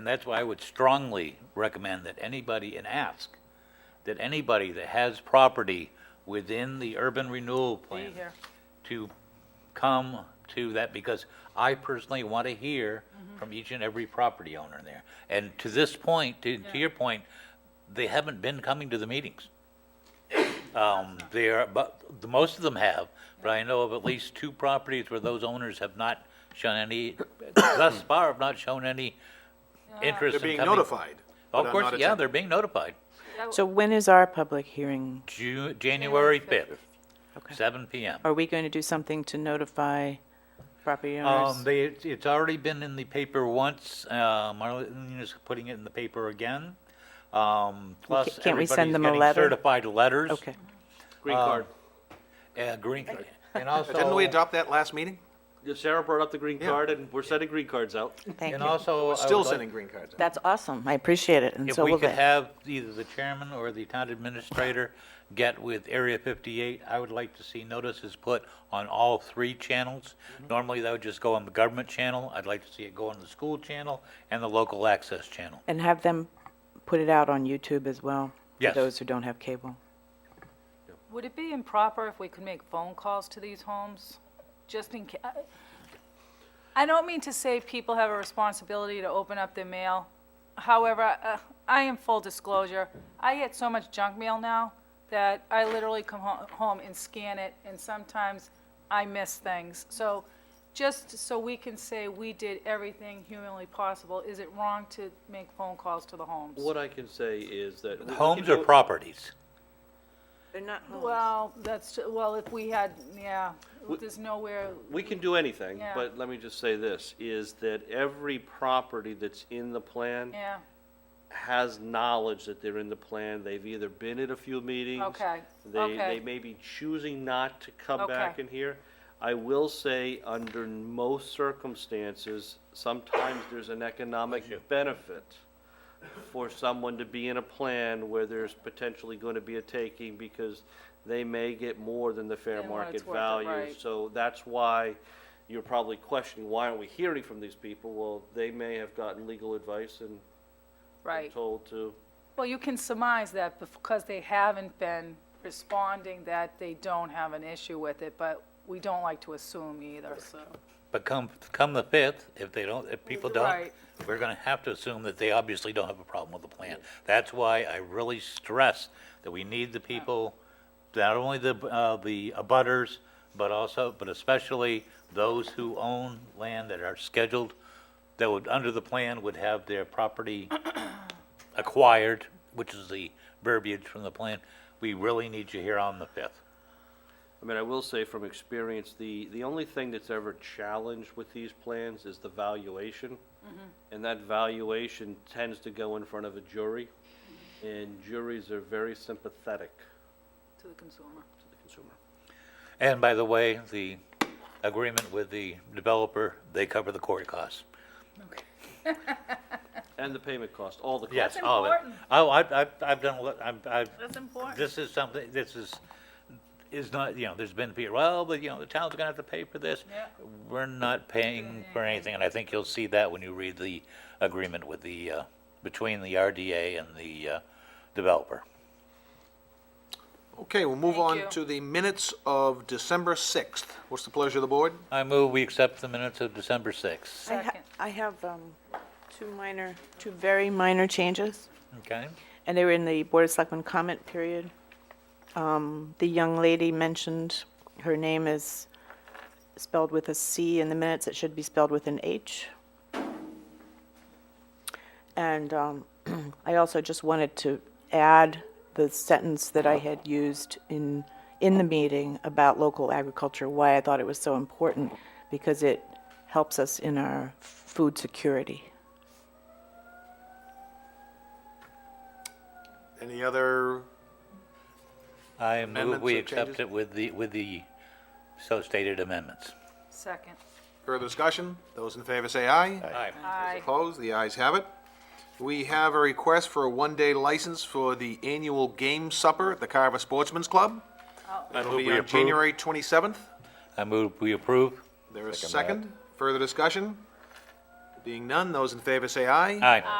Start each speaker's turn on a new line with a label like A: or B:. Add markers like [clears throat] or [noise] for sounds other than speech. A: And that's why I would strongly recommend that anybody, and ask, that anybody that has property within the urban renewal plan
B: here.
A: to come to that, because I personally want to hear from each and every property owner there. And to this point, to, to your point, they haven't been coming to the meetings. Um, they are, but, the- most of them have, but I know of at least two properties where those owners have not shown any,
C: [coughs]
A: thus far have not shown any interest
C: They're
A: in coming.
C: being notified.
A: Of
C: but I'm
A: course,
C: not
A: yeah,
C: attending.
A: they're being notified.
D: So when is our public hearing?
A: Ju- January fifth,
D: Okay.
A: seven PM.
D: Are we going to do something to notify property
A: Um,
D: owners?
A: they, it's- it's already been in the paper once, uh, Marlene is putting it in the paper again. Um, plus
D: can't we
A: everybody's
D: send them a
A: getting
D: letter?
A: certified letters.
D: Okay,
E: Green card.
A: Uh, green, card. and also.
C: Didn't we adopt that last meeting?
E: Yeah, Sarah brought up the green
C: Yeah.
E: card, and we're sending green cards out.
D: thank
A: And
D: you.
A: also. I would
C: Still
A: like-
C: sending green cards. out.
D: That's awesome. I appreciate it, and
A: If
D: so
A: we
D: will
A: could
D: they.
A: have either the chairman or the town administrator get with Area 58, I would like to see notices put on all three channels. Normally, that would just go on the government channel. I'd like to see it go on the school channel and the local access channel.
D: And have them put it out on YouTube as well?
A: Yes.
D: For those who don't have cable.
B: Would it be improper if we could make phone calls to these homes? Just in ca- I don't mean to say people have a responsibility to open up their mail. However, uh, I am full disclosure, I get so much junk mail now that I literally come ho- home and scan it, and sometimes I miss things. So just so we can say we did everything humanly possible, is it wrong to make phone calls to the homes?
E: What I can say is that. we- we
A: Homes
E: can
A: or
E: do it-
A: properties?
D: They're not
B: Well, that's, well, if we had, yeah, there's nowhere,
E: We can do anything,
B: Yeah.
E: but let me just say this, is that every property that's in the plan
B: yeah,
E: has knowledge that they're in the plan. They've either been at a few meetings.
B: Okay,
E: They,
B: okay.
E: they may be choosing not to come
B: Okay.
E: back in here. I will say, under most circumstances, sometimes there's an economic benefit for someone to be in a plan where there's potentially going to be a taking because they may get more than the fair
B: Than what
E: market
B: it's worth,
E: value.
B: right.
E: So that's why you're probably questioning, why aren't we hearing from these people? Well, they may have gotten legal advice and
B: right.
E: told to
B: Well, you can surmise that because they haven't been responding, that they don't have an issue with it, but we don't like to assume either, so.
A: But come, come the 5th, if they don't, if people don't,
B: Right.
A: we're going to have to assume that they obviously don't have a problem with the plan. That's why I really stress that we need the people, not only the, uh, the abutters, but also, but especially those who own land that are scheduled, that would, under the plan, would have their property acquired, which is the verbiage from the plan. We really need you here on the 5th.
E: I mean, I will say from experience, the, the only thing that's ever challenged with these plans is the valuation. And that valuation tends to go in front of a jury, and juries are very sympathetic
B: To the consumer.
E: to the consumer.
A: And by the way, the agreement with the developer, they cover the court costs.
E: And the payment cost, all the costs.
A: Yes,
B: That's
A: all of it.
B: important.
A: Oh, I've, I've, I've done, a lot- I've, I've,
B: That's important.
A: this is something, this is, is not, you know, there's been, people, well, but, you know, the town's gonna have to pay for this.
B: Yeah.
A: We're not paying for anything, and I think you'll see that when you read the agreement with the, uh, between the RDA and the, uh, developer.
C: Okay, we'll move
B: Thank you.
C: on to the minutes of December 6th. What's the pleasure of the board?
A: I move we accept the minutes of December sixth,
D: I ha-
B: Second.
D: I have um, two minor, two very minor changes.
A: okay?
D: and they were in the Board of Selectmen comment period. Um, The young lady mentioned, her name is spelled with a C in the minutes, it should be spelled with an H. And um, [clears throat] I also just wanted to add the sentence that I had used in, in the meeting about local agriculture, why I thought it was so important, because it helps us in our food security.
C: Any other,
A: I move
C: Amendments
A: we
C: or
A: accept
C: changes?
A: it with the, with the so stated amendments.
B: Second.
C: further discussion? Those in favor say aye.
A: Aye.
B: Aye.
C: Opposed, the ayes have it. We have a request for a one-day license for the annual game supper at the Carver Sportsman's Club.
B: Oh.
C: It'll be on January 27th.
A: I move we approve.
C: There is a second. Further discussion? The Being none, those in favor say aye.
A: Aye.